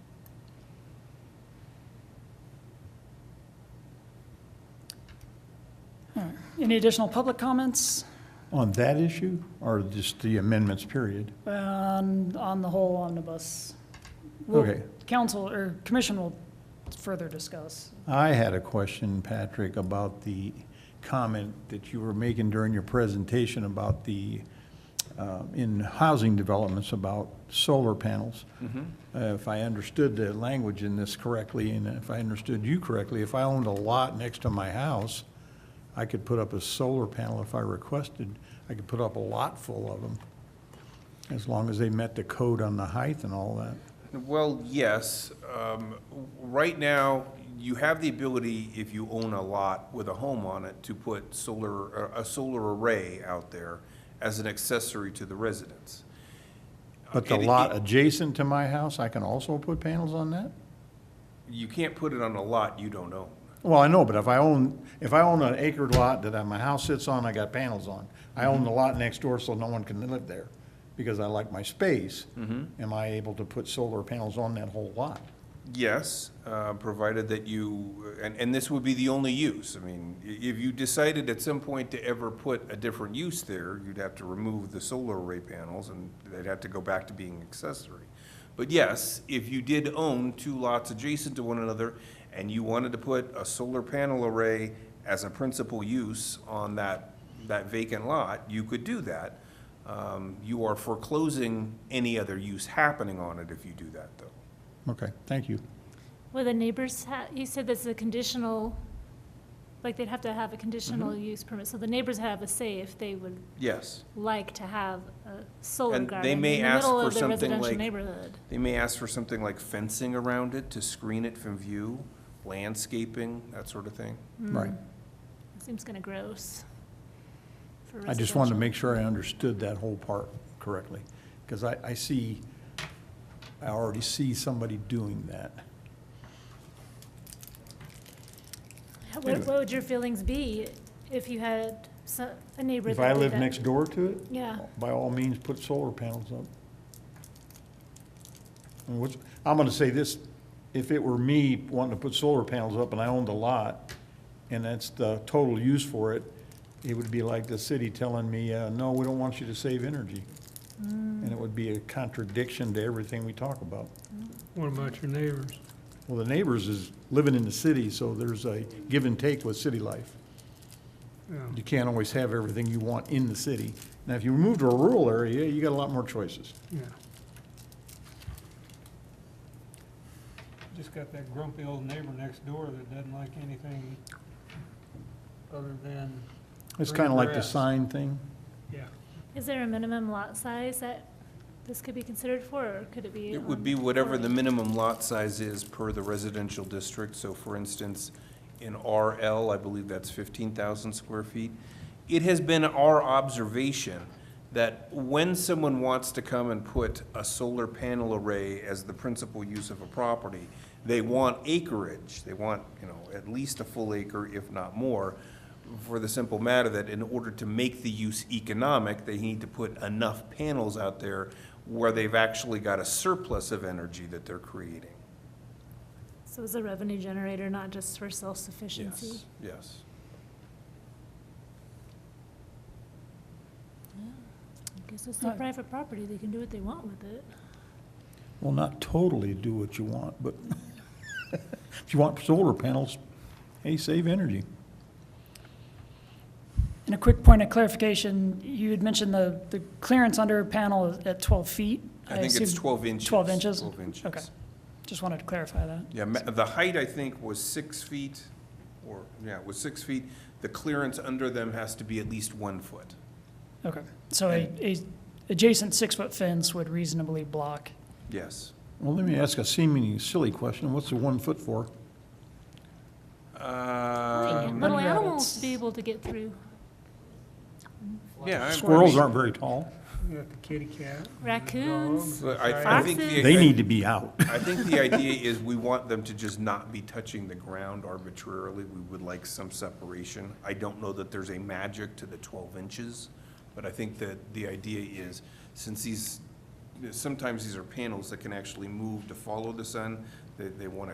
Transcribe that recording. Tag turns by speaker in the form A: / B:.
A: Any additional public comments
B: On that issue, or just the amendments, period?
A: on, on the whole omnibus? We'll-
B: Okay.
A: Council or commission will further discuss.
B: I had a question, Patrick, about the comment that you were making during your presentation about the, uh, in housing developments about solar panels. Uh, If I understood the language in this correctly, and if I understood you correctly, if I owned a lot next to my house, I could put up a solar panel if I requested. I could put up a lot full of them, as long as they met the code on the height and all that.
C: Well, yes. Um, w- Right now, you have the ability, if you own a lot with a home on it, to put solar, a a solar array out there as an accessory to the residence.
B: But the e-
C: And it-
B: lot adjacent to my house, I can also put panels on that?
C: You can't put it on a lot you don't own.
B: Well, I know, but if I own, if I own an acre lot that I- my house sits on, I got panels on. I own the lot next door, so no one can live there, because I like my space. Am I able to put solar panels on that whole lot?
C: Yes, uh, provided that you, and, and this would be the only use. I mean, i- if you decided at some point to ever put a different use there, you'd have to remove the solar array panels and they'd have to go back to being accessory. But yes, if you did own two lots adjacent to one another and you wanted to put a solar panel array as a principal use on that, that vacant lot, you could do that. Um, You are foreclosing any other use happening on it if you do that, though.
B: Okay, thank you.
D: Well, the neighbors, ha- you said this is a conditional, like they'd have to have a conditional
C: Mm-hmm.
D: use permit, so the neighbors have a say if they would
C: Yes.
D: like to have a solar
C: And they
D: garden in the
C: may ask
D: middle
C: for
D: of the
C: something
D: residential
C: like-
D: neighborhood.
C: They may ask for something like fencing around it to screen it from view, landscaping, that sort of thing.
D: Mm,
B: Right.
D: Seems kind of gross for
B: I just wanted to
D: residential.
B: make sure I understood that whole part correctly, because I, I see, I already see somebody doing that.
D: How- What, what would your feelings be if you had so- a neighbor that
B: If I
D: did
B: live
D: that?
B: next door to it?
D: Yeah.
B: By all means, put solar panels up. And what's, I'm gonna say this, if it were me wanting to put solar panels up and I owned a lot, and that's the total use for it, it would be like the city telling me, uh, no, we don't want you to save energy. And it would be a contradiction to everything we talk about.
E: What about your neighbors?
B: Well, the neighbors is living in the city, so there's a give and take with city life.
E: Yeah.
B: You can't always have everything you want in the city. Now, if you move to a rural area, you got a lot more choices.
E: Yeah. Just got that grumpy old neighbor next door that doesn't like anything other than,
B: It's kind of like the
E: Grass.
B: sign thing.
E: yeah.
D: Is there a minimum lot size that this could be considered for, or could it be?
C: It would
D: on
C: be whatever the
D: forty?
C: minimum lot size is per the residential district. So for instance, in RL, I believe that's 15,000 square feet. It has been our observation that when someone wants to come and put a solar panel array as the principal use of a property, they want acreage. They want, you know, at least a full acre, if not more, for the simple matter that in order to make the use economic, they need to put enough panels out there where they've actually got a surplus of energy that they're creating.
D: So it's a revenue generator, not just for self-sufficiency?
C: Yes, yes.
D: Because it's their
A: Right.
D: private property, they can do what they want with it.
B: Well, not totally do what you want, but if you want solar panels, hey, save energy.
A: And a quick point of clarification, you had mentioned the, the clearance under panel is at 12 feet.
C: I think it's
A: assume-
C: 12 inches.
A: 12 inches?
C: 12 inches.
A: Okay. Just wanted to clarify that.
C: Yeah, ma- the height, I think, was six feet, or, yeah, it was six feet. The clearance under them has to be at least one foot.
A: Okay. So a, a adjacent six-foot fence would reasonably block.
C: Yes.
B: Well, let me ask a seemingly silly question. What's the one foot for?
C: Um,
D: Little
A: Bunny
D: animals
A: rabbits.
D: to be able to get through.
C: yeah. I- I
B: Squirrels
C: mean,
B: aren't very tall.
E: You got the kitty cat.
D: Raccoons.
C: I, I think the.
B: They need to be out.
C: I think the idea is we want them to just not be touching the ground arbitrarily. We would like some separation. I don't know that there's a magic to the twelve inches, but I think that the idea is, since these, sometimes these are panels that can actually move to follow the sun, they, they want to